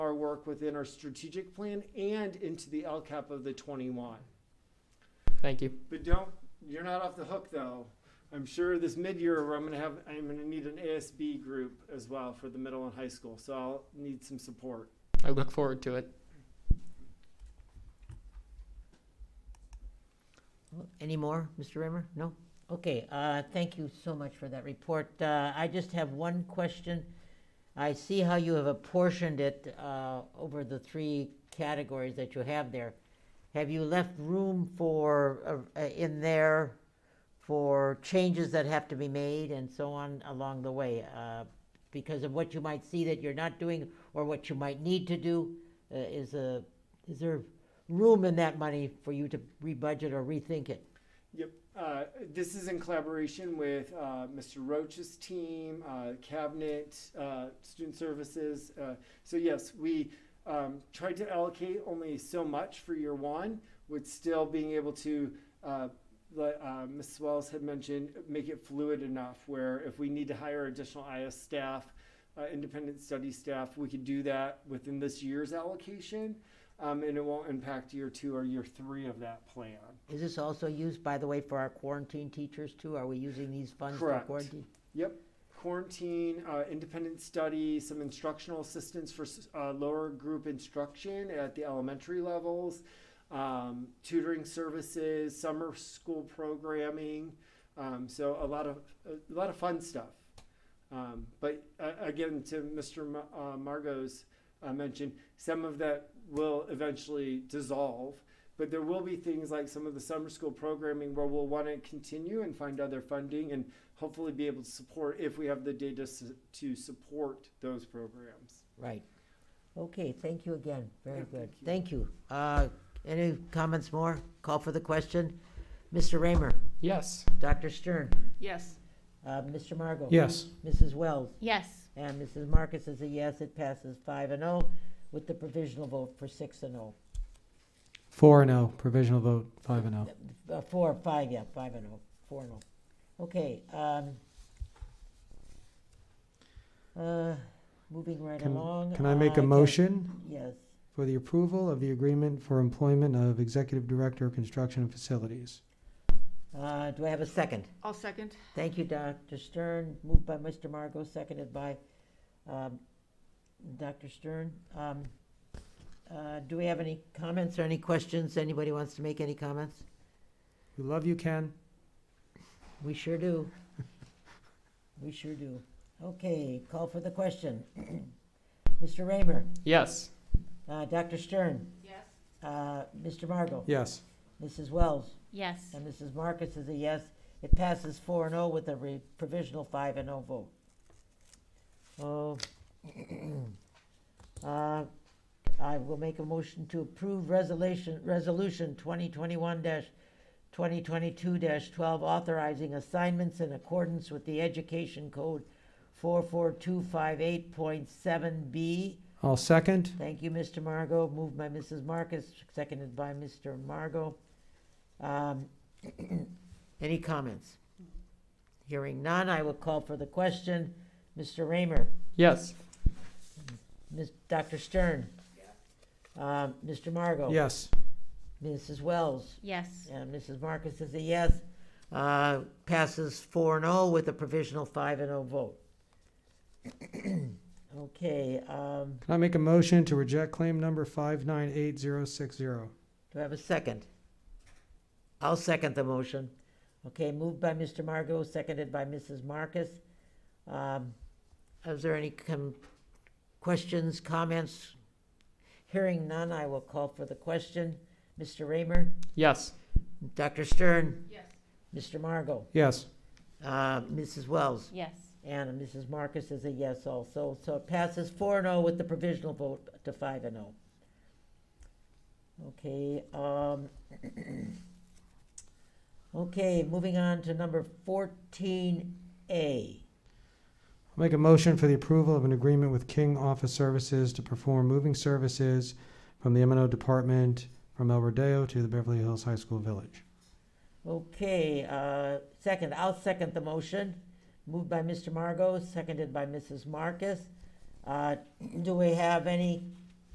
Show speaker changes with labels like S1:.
S1: work within our strategic plan and into the LCAP of the twenty-one.
S2: Thank you.
S1: But don't, you're not off the hook though. I'm sure this mid-year where I'm gonna have, I'm gonna need an ASB group as well for the middle and high school, so I'll need some support.
S2: I look forward to it.
S3: Any more, Mr. Raymer? No? Okay, uh, thank you so much for that report. Uh, I just have one question. I see how you have apportioned it uh, over the three categories that you have there. Have you left room for, uh, uh, in there, for changes that have to be made and so on along the way? uh, Because of what you might see that you're not doing or what you might need to do? Uh, Is a, is there room in that money for you to rebudget or rethink it?
S1: Yep. Uh, this is in collaboration with uh, Mr. Roach's team, uh, cabinet, uh, student services. Uh, so yes, we um, tried to allocate only so much for year one, with still being able to, uh, like uh, Ms. Wells had mentioned, make it fluid enough where if we need to hire additional IS staff, uh, independent study staff, we could do that within this year's allocation, um, and it won't impact year two or year three of that plan.
S3: Is this also used, by the way, for our quarantine teachers too? Are we using these funds for
S1: Correct.
S3: quarantine?
S1: Yep. Quarantine, uh, independent study, some instructional assistance for s- uh, lower group instruction at the elementary levels, um, tutoring services, summer school programming. Um, so a lot of a lot of fun stuff. Um, but uh, again, to Mr. Ma- uh, Margot's uh, mention, some of that will eventually dissolve. But there will be things like some of the summer school programming where we'll want to continue and find other funding and hopefully be able to support if we have the data s- to support those programs.
S3: Right. Okay, thank you again. Very
S1: Yeah,
S3: good.
S1: thank you.
S3: Thank you. Uh, any comments more? Call for the question. Mr. Raymer,
S2: Yes.
S3: Dr. Stern,
S4: Yes.
S3: uh, Mr. Margot.
S5: Yes.
S3: Mrs. Wells,
S4: Yes.
S3: and Mrs. Marcus is a yes. It passes five and oh with the provisional vote for six and oh.
S5: Four and oh, provisional vote, five and oh.
S3: Uh, four, five, yeah, five and oh, four and oh. Okay, um, uh, moving right
S5: Can-
S3: along.
S5: Can I make a
S3: guess-
S5: motion
S3: Yes,
S5: for the approval of the agreement for employment of Executive Director of Construction and Facilities?
S3: uh, do I have a second?
S4: I'll second.
S3: Thank you, Dr. Stern, moved by Mr. Margot, seconded by, um, Dr. Stern. Um, uh, do we have any comments or any questions? Anybody wants to make any comments?
S5: We love you, Ken.
S3: We sure do. We sure do. Okay, call for the question. Mr. Raymer?
S2: Yes.
S3: Uh, Dr. Stern,
S4: Yes.
S3: uh, Mr. Margot,
S5: Yes.
S3: Mrs. Wells,
S4: Yes.
S3: and Mrs. Marcus is a yes. It passes four and oh with a re- provisional five and oh vote. Oh. Uh, I will make a motion to approve resolution, resolution twenty twenty-one twenty twenty-two twelve authorizing assignments in accordance with the Education Code four four two five eight point seven B
S5: I'll second.
S3: Thank you, Mr. Margot. Moved by Mrs. Marcus, seconded by Mr. Margot. Um, Any comments? Hearing none, I will call for the question. Mr. Raymer,
S2: Yes.
S3: Ms., Dr. Stern, uh, Mr. Margot.
S5: Yes.
S3: Mrs. Wells,
S4: Yes.
S3: and Mrs. Marcus is a yes. Uh, Passes four and oh with a provisional five and oh vote. Okay, um,
S5: Can I make a motion to reject claim number five nine eight zero six zero?
S3: Do I have a second? I'll second the motion. Okay, moved by Mr. Margot, seconded by Mrs. Marcus. Um, Is there any com- questions, comments? Hearing none, I will call for the question. Mr. Raymer?
S2: Yes.
S3: Dr. Stern?
S4: Yes.
S3: Mr. Margot?
S5: Yes.
S3: Uh, Mrs. Wells?
S4: Yes.
S3: And Mrs. Marcus is a yes also, so it passes four and oh with the provisional vote to five and oh. Okay, um, okay, moving on to number fourteen A.
S5: I'll make a motion for the approval of an agreement with King Office Services to perform moving services from the M and O Department from El Rodeo to the Beverly Hills High School Village.
S3: Okay, uh, second, I'll second the motion, moved by Mr. Margot, seconded by Mrs. Marcus. Uh, do we have any